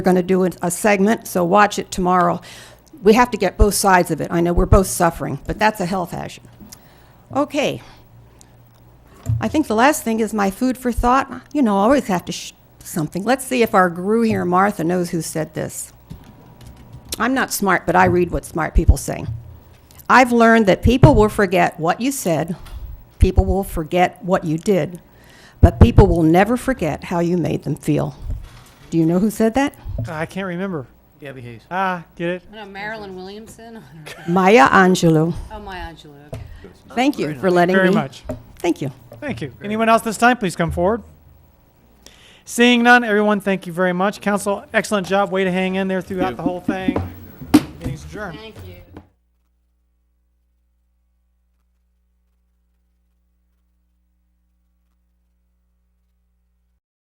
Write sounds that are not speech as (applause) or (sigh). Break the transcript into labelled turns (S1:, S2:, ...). S1: going to do a segment, so watch it tomorrow. We have to get both sides of it. I know we're both suffering, but that's a health hazard. Okay. I think the last thing is my food for thought. You know, I always have to sh- something. Let's see if our guru here, Martha, knows who said this. I'm not smart, but I read what smart people say. I've learned that people will forget what you said, people will forget what you did, but people will never forget how you made them feel. Do you know who said that?
S2: Ah, I can't remember.
S3: Gabby Hayes.
S2: Ah, get it?
S4: No, Marilyn Williamson. (laughs)
S1: Maya Angelou.
S4: Oh, my Angelou. Okay.
S1: Thank you for letting
S2: Very
S1: me.
S2: much.
S1: Thank you.
S2: Thank you. Anyone else this time, please come forward. Seeing none, everyone, thank you very much. Council, excellent job. Way to hang in there throughout the whole thing. Meeting's adjourned.
S4: Thank you.